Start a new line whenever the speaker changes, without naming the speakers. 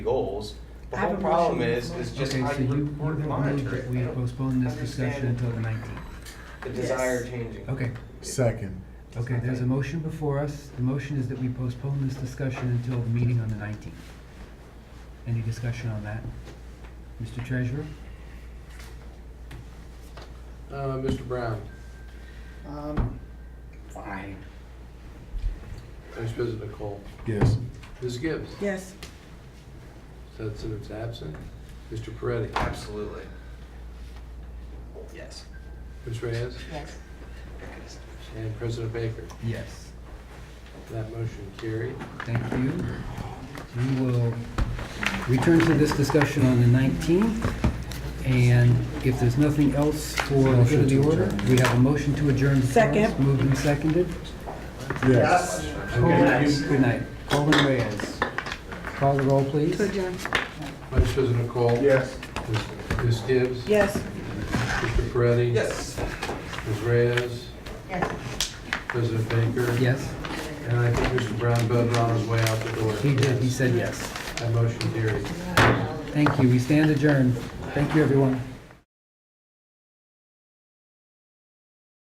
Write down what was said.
goals. The
I have
whole
a
problem
motion.
is, is just
Okay,
how
so
you
you, you
report and
move
monitor
that
it.
we
I don't
postpone this discussion
understand
until the nineteenth.
The desire
Yes.
changing.
Okay,
Second.
okay, there's a motion before us. The motion is that we postpone this discussion until the meeting on the nineteenth. Any discussion on that? Mr. Treasurer?
Uh, Mr. Brown,
Um, fine.
Vice President Cole,
Yes.
Ms. Gibbs,
Yes.
said Senator's absent, Mr. Peretti,
Absolutely. Yes.
Ms. Reyes,
Yes.
and President Baker.
Yes.
That motion carried.
Thank you. We will return to this discussion on the nineteenth. And if there's nothing else for the good of the order, we have a motion to adjourn. before us.
Second.
Moved and seconded.
Yes.
Okay, good night. Colin Reyes. Call the roll, please.
Vice President Cole.
Yes.
Ms. Ms. Gibbs.
Yes.
Mr. Peretti.
Yes.
Ms. Reyes. President Baker.
Yes,
And I think Mr. Brown voted on his way out the door.
he did, he said yes.
That motion carried.
Thank you, we stand adjourned. Thank you, everyone.